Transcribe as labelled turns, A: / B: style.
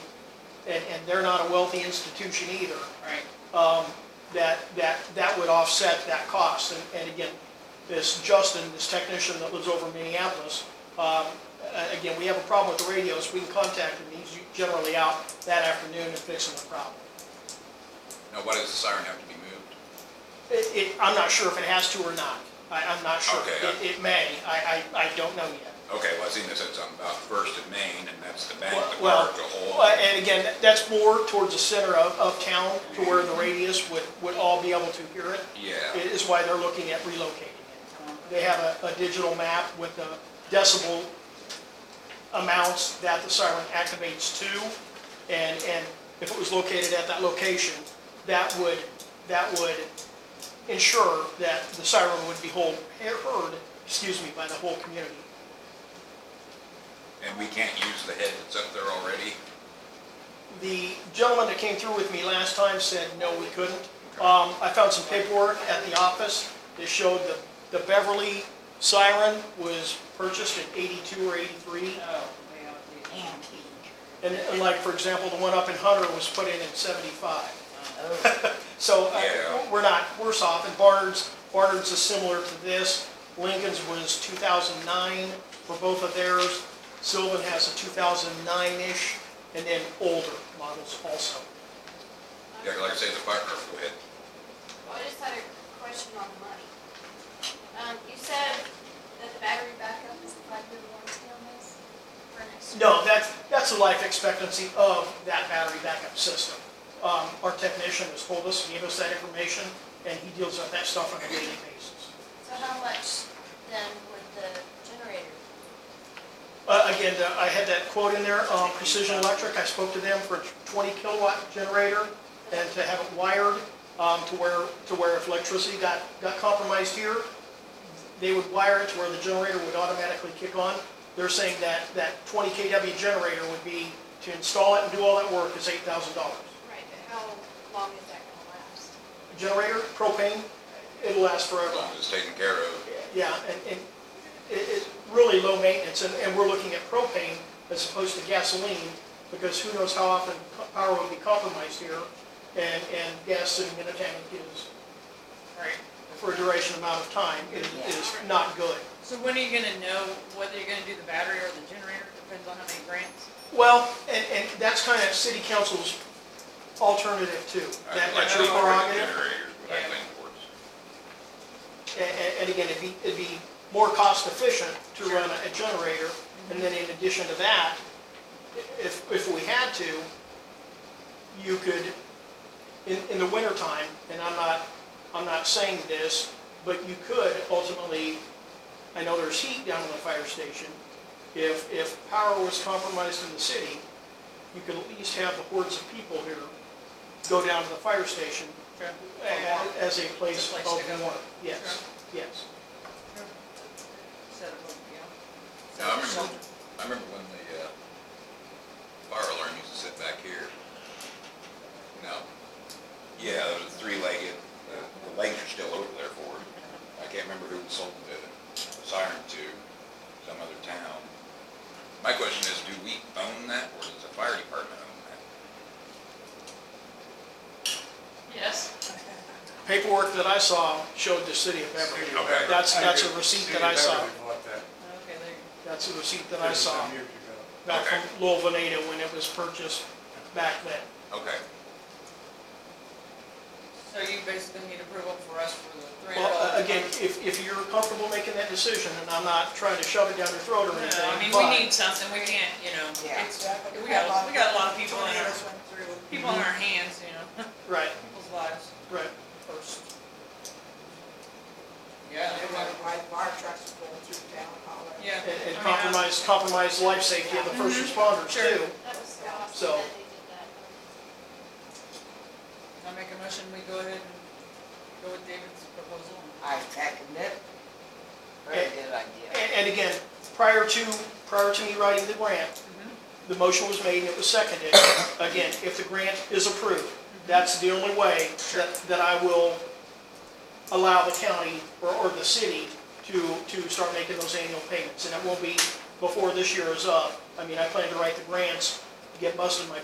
A: and they're not a wealthy institution either,
B: Right.
A: um, that, that, that would offset that cost. And, and again, this Justin, this technician that lives over in Minneapolis, um, a- again, we have a problem with the radios, we can contact him, he's generally out that afternoon and fixing the problem.
C: Now, why does the siren have to be moved?
A: It, it, I'm not sure if it has to or not, I, I'm not sure.
C: Okay, I-
A: It, it may, I, I, I don't know yet.
C: Okay, well, I seen this, it's on about First and Main, and that's the bank, the
A: Well,
C: park, the whole.
A: well, and again, that- that's more towards the center of, of town to where the radius would, would all be able to hear it.
C: Yeah.
A: It is why they're looking at relocating it. They have a, a digital map with the decibel amounts that the siren activates to. And, and if it was located at that location, that would, that would ensure that the siren would be hold, heard, excuse me, by the whole community.
C: And we can't use the head that's up there already?
A: The gentleman that came through with me last time said, no, we couldn't. Um, I found some paperwork at the office that showed that the Beverly siren was purchased in eighty-two or eighty-three.
B: Oh, well, the antique.
A: And and like, for example, the one up in Hunter was put in in seventy-five.
B: Oh,
A: So uh,
C: Yeah.
A: we're not worse off, and Barnard's, Barnard's is similar to this. Lincoln's was 2009 for both of theirs. Sylvan has a 2009-ish, and then older models also.
C: Yeah, like I say, the fire, or go ahead.
D: Well, I just had a question on the money. Um, you said that the battery backup is a five-year warranty on this for next year?
A: No, that's, that's the life expectancy of that battery backup system. Um, Our technician has told us, gave us that information, and he deals with that stuff on a daily basis.
D: So how much then would the generator?
A: Uh, Again, the- I had that quote in there, um, Precision Electric, I spoke to them for a 20 kilowatt generator and to have it wired um, to where, to where if electricity got, got compromised here, they would wire it to where the generator would automatically kick on. They're saying that, that 20 kW generator would be, to install it and do all that work is $8,000.
D: Right, but how long is that gonna last?
A: Generator, propane, it'll last
C: As
A: forever.
C: long as it's taken care of.
A: Yeah, and, and it, it's really low maintenance, and, and we're looking at propane as opposed to gasoline, because who knows how often co- power will be compromised here, and, and gas sitting in a tank is, right, for a duration amount of time, is, is not good.
B: So when are you gonna know whether you're gonna do the battery or the generator? Depends on how many grants.
A: Well, and, and that's kind of city council's alternative too.
C: I'd
A: That-
C: like
A: That's
C: to
A: your
C: look for the
A: prerogative.
C: Generators, but I
B: Yeah.
C: lean towards.
A: And, and again, it'd be, it'd be more cost efficient to run a generator. And then in addition to that, i- if, if we had to, you could, in, in the wintertime, and I'm not, I'm not saying this, but you could ultimately, I know there's heat down in the fire station. If, if power was compromised in the city, you could at least have the hordes of people here go down to the fire station a- as a place
B: It's a place
A: of
B: to go.
A: warmth. Yes, yes.
B: Set it up, yeah.
C: Now, I remember, I remember when the, uh, fire alarm used to sit back here. No. Yeah, it was three-legged, the the legs are still over there for it. I can't remember who sold the siren to, some other town. My question is, do we own that, or does the fire department own that?
B: Yes.
A: Paperwork that I saw showed the city of Beverly.
C: Okay.
A: That's, that's a receipt that I saw.
B: Okay, there you
A: That's a receipt that I saw back from Lowell Veneta when it was purchased back then.
C: Okay,
B: go. So you basically need approval for us for the three
A: Well,
B: hundred
A: uh,
B: dollars.
A: again, if, if you're comfortable making that decision, and I'm not trying to shove it down your throat or anything,
B: No, I mean,
A: but-
B: we need something, we can't, you know,
E: Yeah.
B: it's, we got, we got a lot of people in our, people in our hands, you know,
A: Right,
B: people's lives.
A: right.
B: first. Yeah, they were.
E: trucks going through town
B: Yeah.
A: And and
B: I mean, I-
A: compromise, compromise life safety of the first responders
B: Sure.
A: too.
D: That was so
A: So-
D: awesome that they did that.
B: I make a motion, we go ahead and go with David's proposal.
E: I second it. Very good idea.
A: And, and again, prior to, prior to me writing the grant,
E: Mm-hmm.
A: the motion was made and it was seconded. Again, if the grant is approved,
E: Mm-hmm.
A: that's the only way that, that I will allow the county or, or the city to, to start making those annual payments. And it won't be before this year is up. I mean, I plan to write the grants, get busted my